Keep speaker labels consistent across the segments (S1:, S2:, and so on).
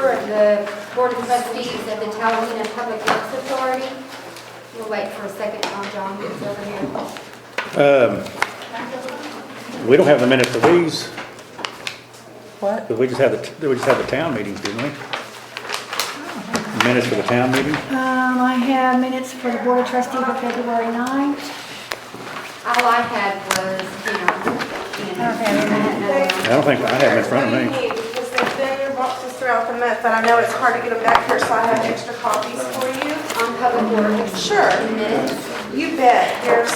S1: the Board of Trustees of the Talalena Public Works Authority. We'll wait for a second while John gets over here.
S2: We don't have the minutes of these,
S3: What?
S2: but we just have the, we just have the town meetings, didn't we? Minutes for the town meeting?
S4: Um, I have minutes for the Board of Trustees of February 9th.
S1: All I had was, you know, you know, and I had
S2: I
S1: another
S2: don't think I have them in front of me.
S5: That's what you need, Because they've been in your boxes throughout the month, but I know it's hard to get them back here, so I have extra copies for you.
S1: one on public works
S5: Sure.
S1: minutes.
S5: You bet. There's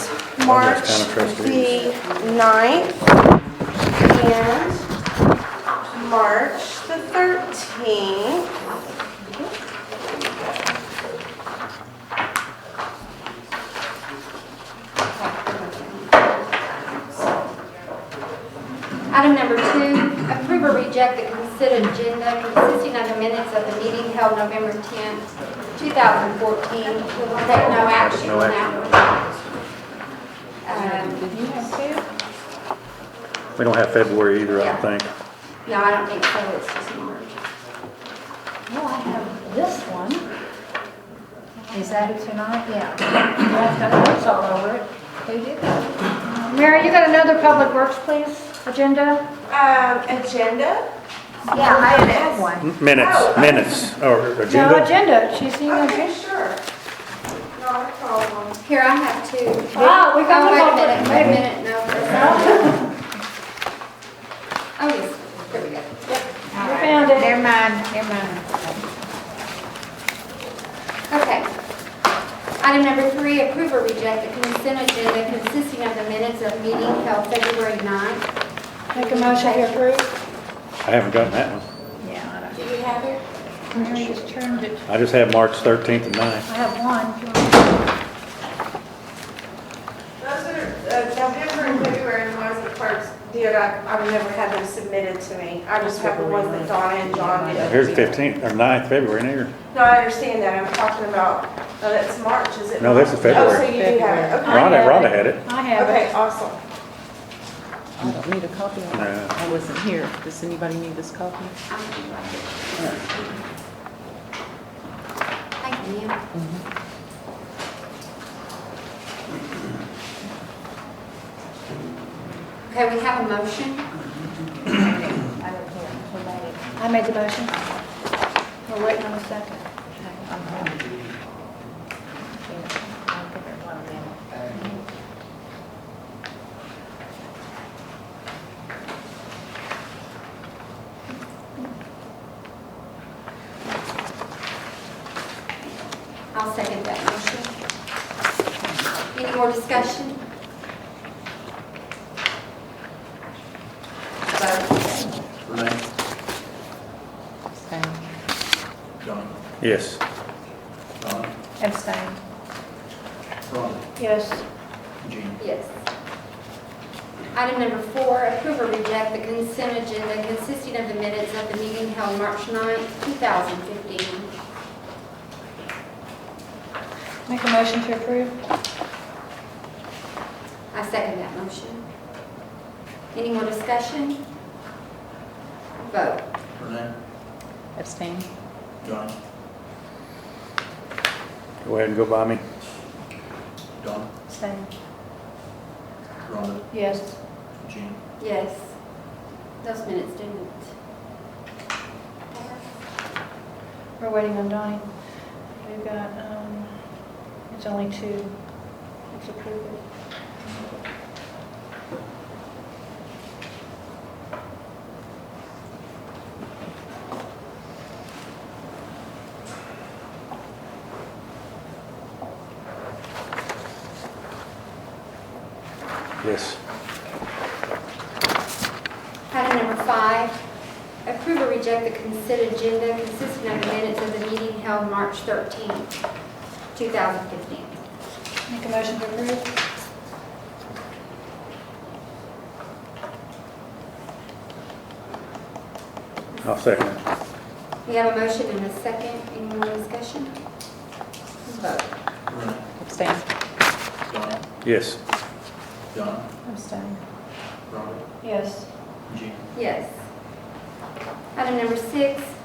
S5: March
S2: Town of Trustees.
S5: the 9th and March the 13th.
S1: Item number two, approve or reject the consent agenda consisting of the minutes of the meeting held November 10th, 2014. We will take no action on that one. Um,
S2: We don't have February either, I don't think.
S1: No, I don't think so, it's just March.
S3: Well, I have this one. Is that it tonight? Yeah. I've got notes all over it. Who did that?
S4: Mary, you got another Public Works, please, agenda?
S5: Um, agenda?
S3: Yeah, I have one.
S2: Minutes, minutes, or
S4: No,
S2: agenda?
S4: agenda, she's seen
S5: Okay,
S4: it.
S5: sure. Not a problem.
S1: Here, I have two.
S4: Wow, Ah, we got
S1: Oh,
S4: them all.
S1: Wait a minute, wait a minute, no. there's not. Oh, yes, there we go.
S4: I found it.
S3: Never mind, never mind.
S1: Okay. Item number three, approve or reject the consent agenda consisting of the minutes of meeting held February 9th.
S4: Make a motion to approve.
S2: I haven't gotten that one.
S3: Yeah,
S1: Do you have it?
S3: I don't- Mary just turned it.
S2: I just have March 13th and 9th.
S3: I have one. if you want.
S5: Those are, uh, November and February and ones the clerks did, I- I've never had them submitted to me. I just have the ones that Donna and John did.
S2: Here's 15th, or 9th, February, and here.
S5: No, I understand that, I'm talking about, no, that's March, is it?
S2: No, that's the
S5: not?
S2: February.
S5: Oh, so you do have it, okay.
S4: Right.
S2: Rhonda,
S4: have
S2: Rhonda
S4: it.
S2: had it.
S4: I have it.
S5: Okay, awesome.
S6: I don't need a copy of
S2: No.
S6: it. I wasn't here. Does anybody need this copy?
S1: Thank you. Okay, we have a motion.
S4: I made the motion. We're waiting on a second.
S1: I'll second that motion. Any more discussion? Vote.
S7: Renee?
S6: Same.
S7: John?
S2: Yes.
S7: Don?
S3: Abstain.
S7: Ron?
S4: Yes.
S7: Jean?
S1: Yes. Item number four, approve or reject the consent agenda consisting of the minutes of the meeting held March 9th, 2015.
S4: Make a motion to approve.
S1: I second that motion. Any more discussion? Vote.
S7: Renee?
S6: Abstain.
S7: John?
S2: Go ahead and go by me.
S7: Don?
S4: Abstain.
S7: Rhonda?
S4: Yes.
S7: Jean?
S1: Yes. Those minutes didn't.
S4: We're waiting on Donnie. We've got, um, it's only two. Let's approve it.
S2: Yes.
S1: Item number five, approve or reject the consent agenda consisting of the minutes of the meeting held March 13th, 2015.
S4: Make a motion to approve.
S2: I'll second it.
S1: We have a motion and a second. Any more discussion? Vote.
S7: Renee?
S6: Abstain.
S7: Don?
S2: Yes.
S7: Don?
S6: Abstain.
S7: Rhonda?
S4: Yes.
S7: Jean?
S1: Yes. Item number six,